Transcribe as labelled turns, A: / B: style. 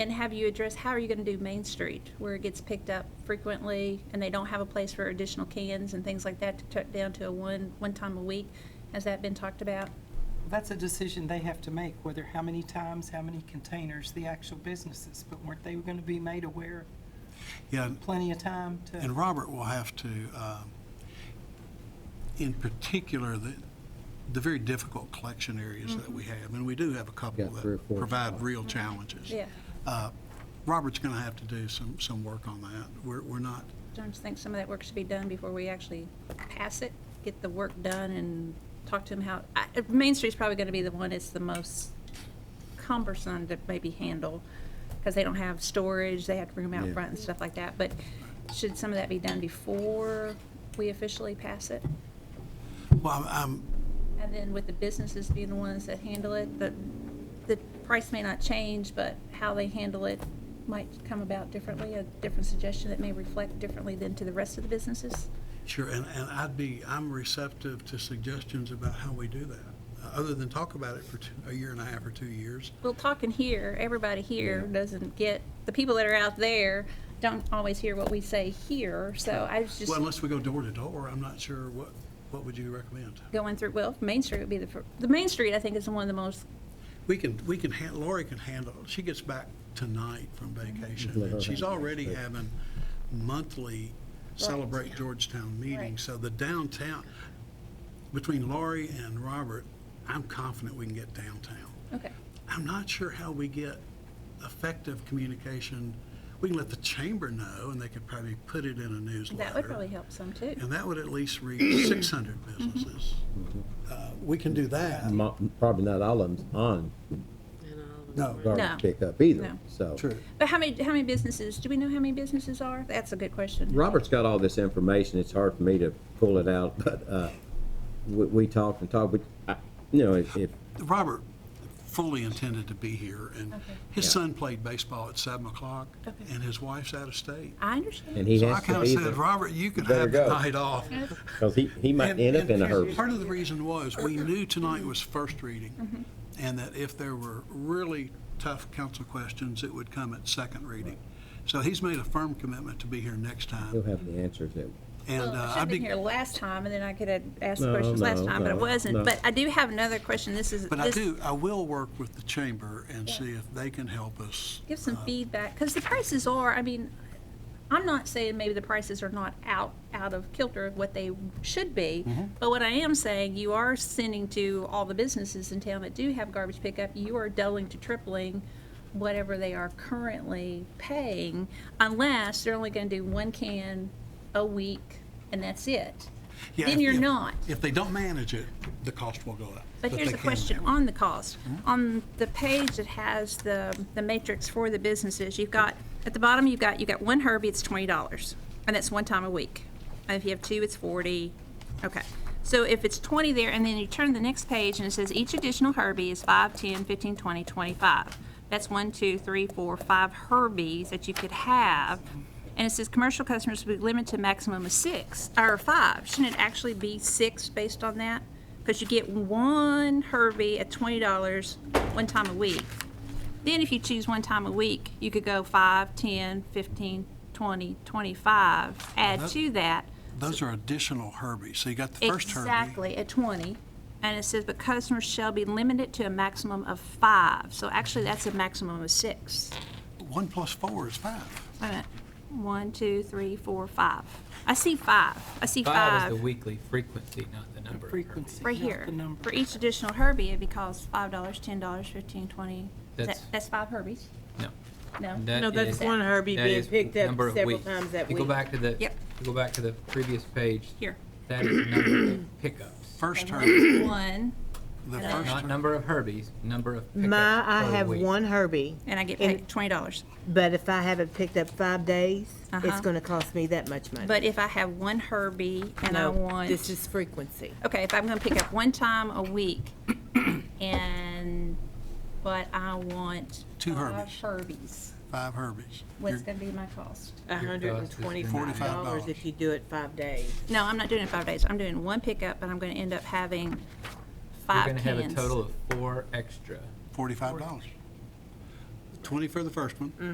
A: And have you addressed, how are you going to do Main Street, where it gets picked up frequently, and they don't have a place for additional cans and things like that to tuck down to a one, one time a week? Has that been talked about?
B: That's a decision they have to make, whether how many times, how many containers, the actual businesses. But weren't they going to be made aware
C: Yeah, and-
B: plenty of time
C: and
B: to?
C: Robert will have to, um, in particular, the, the very difficult collection areas that we have, and we do have a couple
D: Got three or
C: that
D: four
C: provide
D: spots.
C: real challenges.
A: Yeah.
C: Uh, Robert's going to have to do some, some work on that. We're, we're not,
A: Don't you think some of that work should be done before we actually pass it? Get the work done and talk to them how, I- uh, Main Street's probably going to be the one that's the most cumbersome to maybe handle, because they don't have storage, they have to bring them out
D: Yeah.
A: front and stuff like that. But should some of that be done before we officially pass it?
C: well, I'm,
A: And then with the businesses being the ones that handle it, the, the price may not change, but how they handle it might come about differently, a different suggestion that may reflect differently than to the rest of the businesses?
C: Sure, and, and I'd be, I'm receptive to suggestions about how we do that, uh, other than talk about it for two, a year and a half or two years.
A: Well, talking here, everybody here doesn't get, the people that are out there don't always hear what we say here, so I was just
C: Well, unless we go door to door, I'm not sure what, what would you recommend?
A: going through, well, Main Street would be the, fir- the Main Street, I think, is one of the most,
C: We can, we can, han- Lori can handle, she gets back tonight from vacation, and she's already having monthly Celebrate Georgetown meetings, so the downtown, between Lori and Robert, I'm confident we can get downtown.
A: okay,
C: I'm not sure how we get effective communication. We can let the chamber know, and they could probably put it in a newsletter.
A: that would probably Mm-hmm. help some too.
C: And that would at least reach 600 businesses. Uh, We can do that.
D: Mo- Probably not all of them on
C: No,
A: No.
D: garbage pickup either,
A: No.
D: so.
C: true.
A: But how many, how many businesses, do we know how many businesses are? That's a good question.
D: Robert's got all this information, it's hard for me to pull it out, but, uh, we, we talked and talked, but, I, you know, if, if
C: Robert fully intended to be here, and his son played baseball at 7 o'clock,
A: Okay.
C: and his wife's out of state.
A: I understand.
D: and he
C: So I
D: has
C: kind of
D: to be
C: said,
D: there,
C: Robert, you could
D: better
C: have the
D: go."
C: night off.
D: cause he, he might
C: And-
D: end up
C: and
D: in a hurry.
C: Part of the reason was, we knew tonight was first
A: Mm-hmm.
C: reading, and that if there were really tough council questions, it would come at second reading. So he's made a firm commitment to be here next
D: He'll
C: time,
D: have the answers that,
C: and
A: Well, I
C: uh,
A: should have
C: I'd
A: been
C: be,
A: here last time, and then I could have asked the
D: No,
A: questions last
D: no,
A: time, but I
D: no,
A: wasn't.
D: no.
A: But I do have another question, this is.
C: but I
A: this-
C: do, I will work with the chamber and see if they can help us.
A: give some feedback because the prices are i mean i'm not saying maybe the prices are not out out of kilter of what they should be
C: Mm-hmm.
A: but what i am saying you are sending to all the businesses in town that do have garbage pickup you are doubling to tripling whatever they are currently paying unless they're only going to do one can a week and that's it
C: Yeah,
A: then
C: if-
A: you're
C: if-
A: not
C: If they don't manage it, the cost will go up.
A: but here's
C: they
A: a
C: can Hmm?
A: question
C: manage it.
A: on the cost. On the page that has the, the matrix for the businesses, you've got, at the bottom, you've got, you've got one Herbie, it's twenty dollars, and that's one time a week. And if you have two, it's forty, okay. So if it's twenty there, and then you turn to the next page, and it says each additional Herbie is five, ten, fifteen, twenty, twenty-five. That's one, two, three, four, five Herbies that you could have. And it says commercial customers will be limited to a maximum of six, or five. Shouldn't it actually be six based on that? Because you get one Herbie at twenty dollars one time a week. Then if you choose one time a week, you could go five, ten, fifteen, twenty, twenty-five, add
C: that-
A: to that.
C: Those are additional Herbies, so you got the first Herbie.
A: Exactly, at twenty. And it says, but customers shall be limited to a maximum of five. So actually, that's a maximum of six.
C: One plus four is five.
A: Wait a minute. One, two, three, four, five. I see five. I see
E: Five
A: five.
E: is the weekly frequency, not the number. of herpes.
B: Frequency,
A: Right
B: not
A: here.
B: the number.
A: For each additional Herbie, it costs five dollars, ten dollars, fifteen, twenty. Is that-
E: That's-
A: That's five Herbies?
E: No.
A: No?
E: That
F: No, that's
E: is-
F: one Herbie
E: that
F: being
E: is
F: picked up
E: number of
F: several
E: weeks.
F: times that
E: You go
F: week.
E: back to the,
A: Yep.
E: you go back to the previous page.
A: Here.
E: That is number of pickups.
C: First Herbie,
A: One,
C: the first
E: Not
C: Herbie.
E: number of herbies, number of pickups
F: My, I
E: per
F: have
E: week.
F: one Herbie,
A: and I get
F: And-
A: paid twenty dollars.
F: but if I haven't picked up five days,
A: Uh-huh.
F: it's gonna cost me that much money.
A: But if I have one Herbie and I
F: No,
A: want,
F: This is frequency.
A: okay, if I'm gonna pick up one time a week and, but I want.
C: Two
A: five
C: Herbies.
A: Herbies,
C: five Herbies.
A: what's
C: You're-
A: gonna be my cost?
F: A hundred
E: cost
F: and
E: is
F: twenty-five
C: $45.
F: dollars if you do it five days.
A: No, I'm not doing it five days. I'm doing one pickup, but I'm gonna end up having
E: You're
A: five
E: gonna
A: cans.
E: have a total of four extra.
C: Forty-five dollars. twenty for the first one.